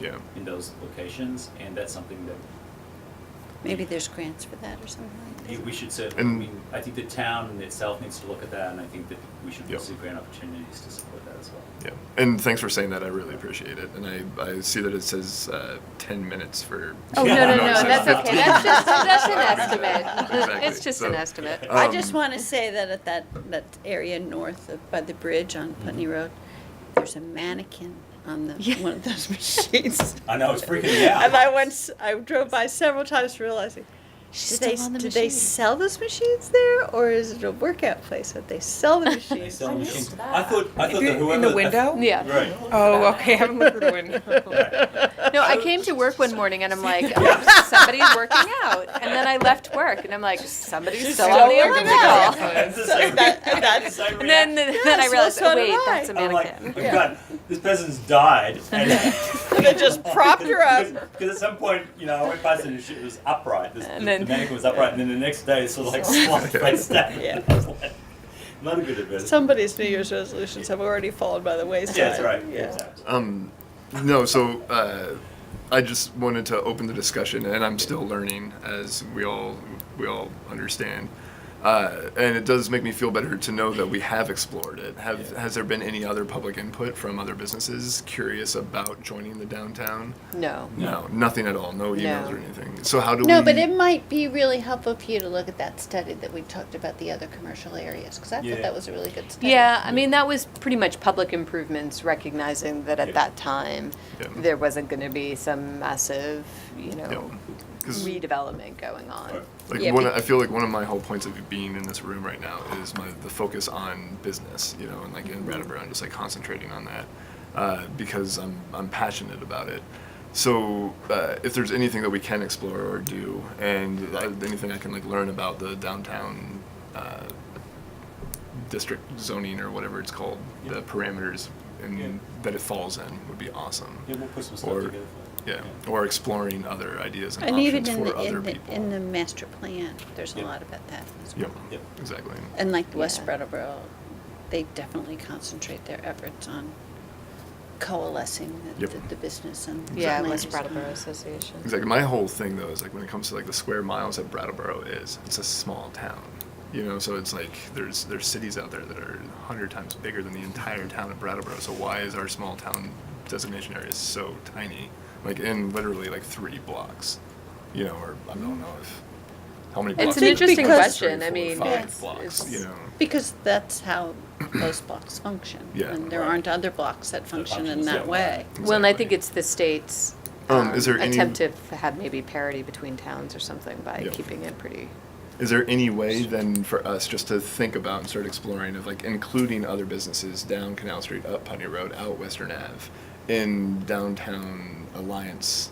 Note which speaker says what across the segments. Speaker 1: Yeah.
Speaker 2: in those locations, and that's something that
Speaker 3: Maybe there's grants for that or something like that.
Speaker 2: you- we should say, I
Speaker 1: And-
Speaker 2: mean, I think the town itself needs to look at that, and I think that we should
Speaker 1: Yep.
Speaker 2: pursue grant opportunities to support that as well.
Speaker 1: Yeah, and thanks for saying that. I really appreciate it. And I, I see that it says uh, ten minutes for.
Speaker 4: Oh, no, no, no,
Speaker 1: it's
Speaker 4: that's
Speaker 1: not 15.
Speaker 4: okay. That's just, that's an
Speaker 1: Exactly.
Speaker 4: estimate.
Speaker 1: Exactly.
Speaker 4: It's just an
Speaker 1: So,
Speaker 4: estimate.
Speaker 1: uh,
Speaker 3: I
Speaker 1: Um,
Speaker 3: just want to say that at that, that area north of, by the bridge on
Speaker 2: Mm-hmm.
Speaker 3: Putney Road, there's a mannequin on the,
Speaker 4: Yeah.
Speaker 3: one of those machines.
Speaker 2: I know, it's freaking me out.
Speaker 3: And I once, I drove by several times realizing, do
Speaker 4: She's
Speaker 3: they,
Speaker 4: still on the
Speaker 3: do they
Speaker 4: machine.
Speaker 3: sell those machines there or is it a workout place that they sell the
Speaker 2: They
Speaker 3: machines?
Speaker 2: sell
Speaker 5: I missed
Speaker 2: machines.
Speaker 5: that.
Speaker 2: I thought, I
Speaker 6: If
Speaker 2: thought
Speaker 6: you-
Speaker 2: that whoever.
Speaker 6: in the
Speaker 2: I-
Speaker 6: window?
Speaker 4: Yeah.
Speaker 2: Right.
Speaker 6: Oh, okay. I haven't looked at the window.
Speaker 4: No, I came to work one morning and I'm like, oh, somebody's working out. And then I left work and I'm like, somebody's still on the
Speaker 3: working
Speaker 4: elliptical.
Speaker 2: That's the same-
Speaker 3: That- that's-
Speaker 2: same
Speaker 4: And then,
Speaker 2: reaction.
Speaker 4: then I
Speaker 3: Yes, well,
Speaker 4: realized,
Speaker 3: so
Speaker 4: oh,
Speaker 3: did
Speaker 4: wait,
Speaker 3: I.
Speaker 4: that's a
Speaker 2: I'm like,
Speaker 4: mannequin.
Speaker 2: oh God, this person's died. And
Speaker 3: They just propped her up.
Speaker 2: Because at some point, you know, I went past it and she was upright. This,
Speaker 4: And
Speaker 2: the,
Speaker 4: then-
Speaker 2: the mannequin was upright, and then the next day it's sort of like slot face down.
Speaker 3: Yeah.
Speaker 2: I was like, Not a good advertisement.
Speaker 3: Somebody's New Year's resolutions have already fallen by the wayside.
Speaker 2: yeah, that's right.
Speaker 3: Yeah.
Speaker 2: Exactly.
Speaker 1: Um, no, so uh, I just wanted to open the discussion, and I'm still learning as we all we all understand. Uh, and it does make me feel better to know that we have explored it. Have
Speaker 2: Yeah.
Speaker 1: has there been any other public input from other businesses curious about joining the downtown?
Speaker 4: No.
Speaker 1: No, nothing at all. No emails or
Speaker 4: No.
Speaker 1: anything. So how do we?
Speaker 3: No, but it might be really helpful for you to look at that study that we talked about the other commercial areas, because I
Speaker 2: Yeah.
Speaker 3: thought that was a really good study.
Speaker 4: Yeah, I mean, that was pretty much public improvements recognizing that
Speaker 2: Yeah.
Speaker 4: at that time,
Speaker 1: Yeah.
Speaker 4: there wasn't going to be some massive, you know,
Speaker 1: Because
Speaker 4: redevelopment going on.
Speaker 2: Right.
Speaker 1: like
Speaker 4: Yeah,
Speaker 1: one,
Speaker 4: be-
Speaker 1: I feel like one of my whole points of being in this room right now is my the focus on business, you know, and like in Brattleboro, and just like concentrating on that uh, because I'm I'm passionate about it. So uh, if there's anything that we can explore or do, and I, anything I can like learn about the downtown uh, district zoning or whatever it's called,
Speaker 2: Yeah.
Speaker 1: the parameters and
Speaker 2: Yeah.
Speaker 1: that it falls in would be awesome.
Speaker 2: Yeah, we'll put some stuff
Speaker 1: Or-
Speaker 2: together. For
Speaker 1: Yeah, or exploring other ideas and,
Speaker 3: And even
Speaker 1: options
Speaker 3: in
Speaker 1: for
Speaker 3: the,
Speaker 1: other
Speaker 3: in the,
Speaker 1: people.
Speaker 3: in the master plan, there's a
Speaker 2: Yeah.
Speaker 3: lot about that. as
Speaker 1: Yep.
Speaker 3: well.
Speaker 2: Yep.
Speaker 1: Exactly.
Speaker 3: And like West
Speaker 4: Yeah.
Speaker 3: Brattleboro, they definitely concentrate their efforts on coalescing the,
Speaker 1: Yep.
Speaker 3: the, the business and.
Speaker 4: Yeah,
Speaker 3: land
Speaker 4: West
Speaker 3: use plan.
Speaker 4: Brattleboro Association.
Speaker 1: Exactly. My whole thing though is like when it comes to like the square miles that Brattleboro is, it's a small town. You know, so it's like there's there's cities out there that are hundred times bigger than the entire town of Brattleboro. So why is our small town designation area so tiny? Like in literally like three blocks. You know, or I don't know if how many
Speaker 4: It's
Speaker 1: blocks
Speaker 4: an
Speaker 1: is it?
Speaker 4: interesting
Speaker 1: Three, four,
Speaker 4: question.
Speaker 1: three,
Speaker 4: I
Speaker 1: four,
Speaker 4: mean,
Speaker 1: five
Speaker 3: it's-
Speaker 1: blocks,
Speaker 4: it's-
Speaker 1: you know.
Speaker 3: Because that's how those blocks function.
Speaker 1: Yeah.
Speaker 3: And there
Speaker 2: Right.
Speaker 3: aren't other blocks that function in
Speaker 2: functions
Speaker 3: that
Speaker 2: that
Speaker 3: way.
Speaker 2: way.
Speaker 4: Well, and I
Speaker 1: Exactly.
Speaker 4: think it's the state's
Speaker 1: Um, is there any-
Speaker 4: attempt to f- have maybe parity between towns or something by
Speaker 1: Yeah.
Speaker 4: keeping it pretty.
Speaker 1: Is there any way then for us just to think about and start exploring of like including other businesses down Canal Street, up Putney Road, out Western Ave, in downtown alliance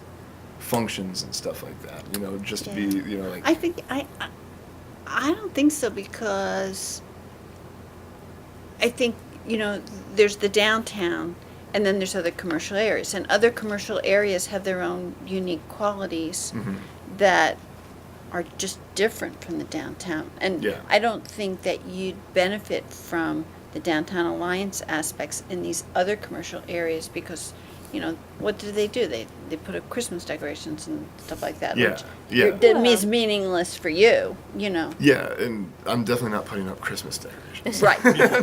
Speaker 1: functions and stuff like that? You know, just to
Speaker 3: Yeah.
Speaker 1: be you know like
Speaker 3: I think I, I- I don't think so because I think you know there's the downtown and then there's other commercial areas and other commercial areas have their own unique qualities
Speaker 1: Mhm.
Speaker 3: that are just different from the downtown and
Speaker 1: Yeah.
Speaker 3: I don't think that you'd benefit from the downtown alliance aspects in these other commercial areas because you know what do they do they they put up Christmas decorations and stuff like that
Speaker 1: Yeah,
Speaker 3: which
Speaker 1: yeah.
Speaker 3: that means meaningless for you, you know.
Speaker 1: yeah, and I'm definitely not putting up Christmas decorations.
Speaker 3: Right.
Speaker 4: Well,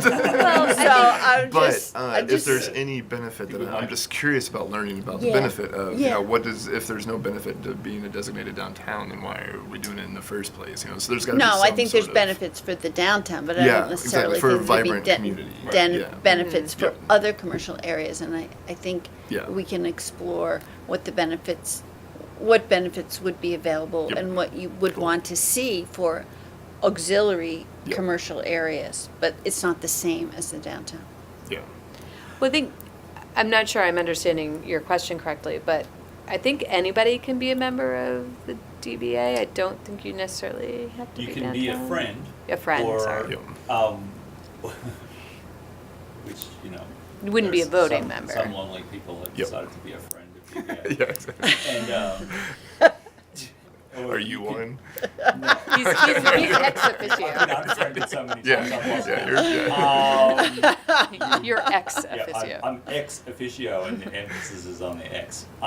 Speaker 3: so I'm
Speaker 1: But
Speaker 3: just,
Speaker 1: uh,
Speaker 3: I'm
Speaker 1: if
Speaker 3: just
Speaker 1: there's any benefit,
Speaker 2: You
Speaker 1: then
Speaker 2: would
Speaker 1: I'm
Speaker 2: like-
Speaker 1: just curious about learning about the
Speaker 3: Yeah.
Speaker 1: benefit of, you
Speaker 3: Yeah.
Speaker 1: know, what does, if there's no benefit to being a designated downtown, then why are we doing it in the first place? You know, so there's gotta be
Speaker 3: no. I
Speaker 1: some
Speaker 3: think there's
Speaker 1: sort of-
Speaker 3: benefits for the downtown, but I
Speaker 1: Yeah,
Speaker 3: don't necessarily
Speaker 1: exactly, for a
Speaker 3: think there'd be
Speaker 1: vibrant
Speaker 3: de-
Speaker 1: community. Right,
Speaker 3: den-
Speaker 1: yeah. Mm-hmm.
Speaker 3: benefits for
Speaker 1: Yeah.
Speaker 3: other commercial areas, and I, I think
Speaker 1: Yeah.
Speaker 3: we can explore what the benefits, what benefits would be available,
Speaker 1: Yep.
Speaker 3: and what you would
Speaker 1: Cool.
Speaker 3: want to see for auxiliary
Speaker 1: Yep.
Speaker 3: commercial areas. But it's not the same as the downtown.
Speaker 1: Yeah.
Speaker 4: Well, I think I'm not sure I'm understanding your question correctly, but I think anybody can be a member of the DBA. I don't think you necessarily have to
Speaker 2: You
Speaker 4: be
Speaker 2: can be a
Speaker 4: downtown.
Speaker 2: friend.
Speaker 4: A friend,
Speaker 2: or,
Speaker 4: sorry.
Speaker 1: Yeah.
Speaker 2: Um, which, you know.
Speaker 4: You wouldn't be a
Speaker 2: there's
Speaker 4: voting
Speaker 2: some-
Speaker 4: member.
Speaker 2: Some lonely people have
Speaker 1: Yep.
Speaker 2: decided to be a friend of DBA.
Speaker 1: yeah, exactly.
Speaker 2: And, um, or
Speaker 1: Are you
Speaker 2: could-
Speaker 1: one?
Speaker 4: He's, he's, he's ex
Speaker 2: I've been
Speaker 4: officio.
Speaker 2: unfriended so many
Speaker 1: Yeah,
Speaker 2: times. I'm lost
Speaker 1: yeah,
Speaker 2: now.
Speaker 1: you're-
Speaker 2: Um,
Speaker 4: You're ex
Speaker 2: yeah,
Speaker 4: officio.
Speaker 2: I'm, I'm ex officio, and the emphasis is on the ex.